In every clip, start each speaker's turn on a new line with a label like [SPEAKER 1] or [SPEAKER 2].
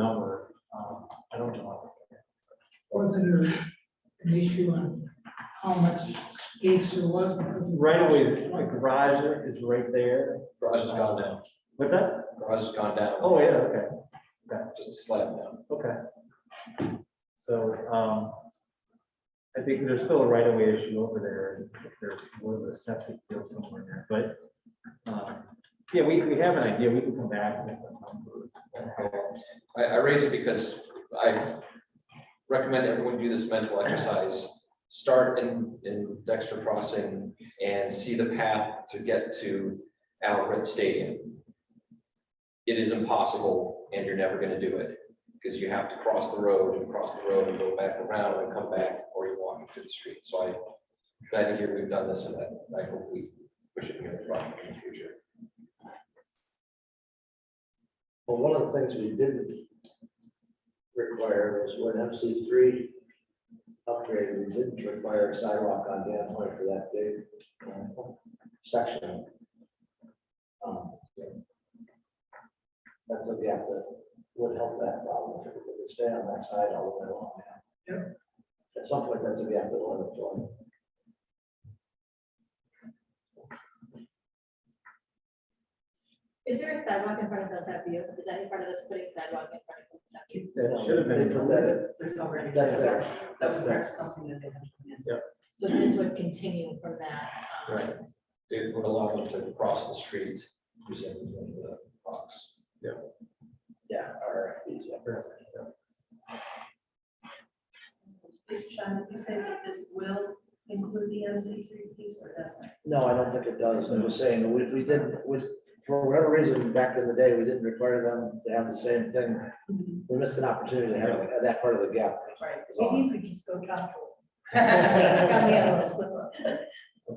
[SPEAKER 1] number, um, I don't know.
[SPEAKER 2] Wasn't there an issue on how much space there was? because of-
[SPEAKER 1] Right away, the garage is right there,
[SPEAKER 3] Garage has gone down,
[SPEAKER 1] what's that?
[SPEAKER 3] garage has gone down,
[SPEAKER 1] Oh, yeah, okay,
[SPEAKER 3] just a slab down.
[SPEAKER 1] okay. So, um, I think there's still a right away issue over there, if there was a septic field somewhere there, but, um, yeah, we, we have an idea, we can come back with a number.
[SPEAKER 3] I, I raise it because I recommend everyone do this mental exercise. Start in, in Dexter Crossing and see the path to get to Alred Stadium. It is impossible and you're never gonna do it, because you have to cross the road and cross the road and go back around and come back, or you're walking through the street. So I, glad to hear we've done this and that, I hope we push it here in the future.
[SPEAKER 4] Well, one of the things we didn't require was when MC three upgrade, we didn't require a sidewalk on Dan Point for that big uh, section. Um, That's a gap that would help that problem, if we could stay on that side all the way along. Yeah. At some point, that's a gap that will end up joining.
[SPEAKER 5] Is there a sidewalk in front of Hilltop View? Is that in front of us putting sidewalk in front of Hilltop View?
[SPEAKER 1] That should have been.
[SPEAKER 4] They put that in.
[SPEAKER 6] There's already.
[SPEAKER 4] That's there.
[SPEAKER 6] That was
[SPEAKER 4] That's there.
[SPEAKER 6] perhaps something that they had. planned.
[SPEAKER 5] So this would continue from that. um,
[SPEAKER 1] Right.
[SPEAKER 3] it would allow them to cross the street using the box.
[SPEAKER 4] Yeah, or, yeah.
[SPEAKER 6] Sean, did you say that this will include the MC three piece or doesn't?
[SPEAKER 4] No, I don't think it does. I'm just saying, we, we didn't, we, for whatever reason, back in the day, we didn't require them to have the same thing. We missed an opportunity to have that part of the gap.
[SPEAKER 6] Right.
[SPEAKER 4] That's all.
[SPEAKER 5] Maybe you could just go talk to. Got me a
[SPEAKER 4] I
[SPEAKER 5] little slip up.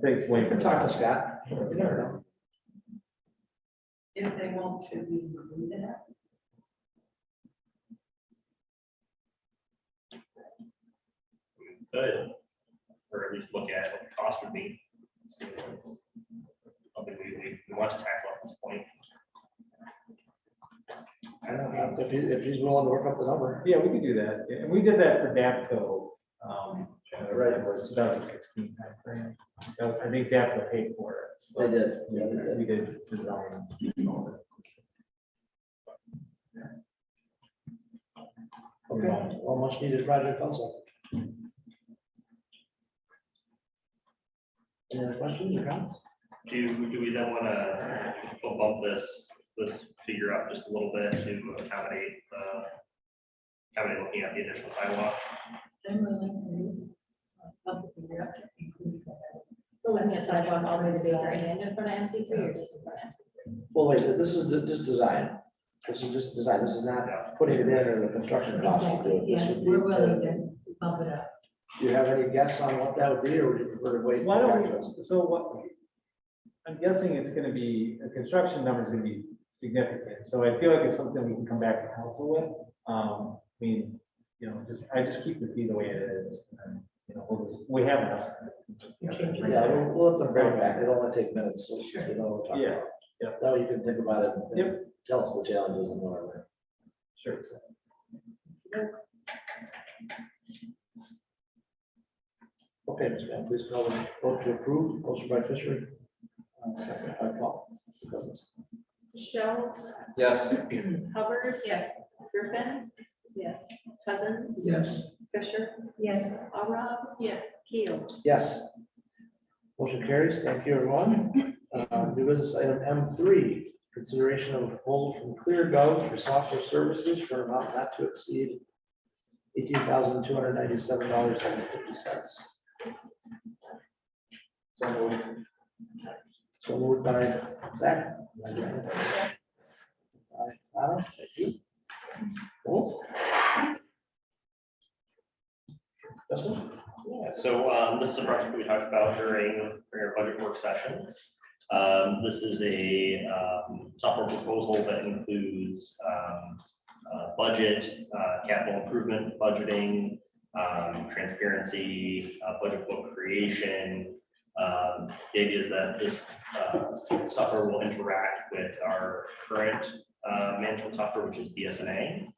[SPEAKER 1] Thanks, Wayne.
[SPEAKER 4] can talk to Scott. You never know.
[SPEAKER 6] If they want to remove that,
[SPEAKER 7] could, or at least look at what the cost would be. So it's Something we, we, we want to tackle at this point.
[SPEAKER 4] I don't know, if he, if he's willing to work up the number.
[SPEAKER 1] Yeah, we could do that, and we did that for DAPCO. um, uh,
[SPEAKER 4] Right.
[SPEAKER 1] It was 2016 timeframe. So I think DAPCO paid for it.
[SPEAKER 4] They did.
[SPEAKER 1] Yeah, We did design.
[SPEAKER 4] Okay, well, much needed project also. Any other questions or comments?
[SPEAKER 7] Do, do we then want to bump this, this figure up just a little bit to accommodate, uh, accommodate looking at the additional sidewalk?
[SPEAKER 6] then we'll include. uh, Help figure out to include that.
[SPEAKER 5] So looking at sidewalk all the way to Baker and in front of MC three or just in front of MC three?
[SPEAKER 4] Well, wait, this is ju- just design. This is just design. This is not putting it in or the construction cost. to do it. This
[SPEAKER 6] Yes,
[SPEAKER 4] would be
[SPEAKER 6] we're
[SPEAKER 4] to-
[SPEAKER 6] willing to bump it up.
[SPEAKER 4] Do you have any guess on what that would be, or would you prefer to wait?
[SPEAKER 1] Why don't we, so what, I'm guessing it's gonna be, the construction number is gonna be significant, so I feel like it's something we can come back to council with. Um, I mean, you know, just, I just keep the fee the way it is, and, you know, we'll just- we have enough.
[SPEAKER 6] Change
[SPEAKER 4] Yeah, we'll, we'll let them bring it back, it'll only take minutes, so you know. we'll talk
[SPEAKER 1] Yeah,
[SPEAKER 4] about it.
[SPEAKER 1] yeah.
[SPEAKER 4] That way you can think about it. and
[SPEAKER 1] Yep.
[SPEAKER 4] Tell us the challenges and whatever.
[SPEAKER 1] Sure.
[SPEAKER 4] Okay, Ms. Van, please call the vote to approve, motion by Fisher. uh, Second by Paul. Cousins.
[SPEAKER 5] Schultz,
[SPEAKER 3] Yes,
[SPEAKER 5] Hubbard,
[SPEAKER 6] Yes.
[SPEAKER 5] Griffin,
[SPEAKER 6] Yes.
[SPEAKER 5] Cousins,
[SPEAKER 4] Yes.
[SPEAKER 5] Fisher,
[SPEAKER 6] Yes.
[SPEAKER 5] Arab, yes, Keel.
[SPEAKER 4] Yes. Motion carries, thank you, everyone. Uh, New business item M three, consideration of hold from ClearGov for software services for an amount not to exceed eighteen thousand two hundred ninety-seven dollars and fifty cents. So moved. So moved by Zach. By Anna, thank you. Wolf? Justin?
[SPEAKER 7] Yeah, so um, this is a project we talked about during during our budget work sessions. Um, This is a um, software proposal that includes um, uh, budget, uh, capital improvement, budgeting, um, transparency, uh, budget book creation. Um, The idea is that this uh, software will interact with our current uh, management software, which is DSNA.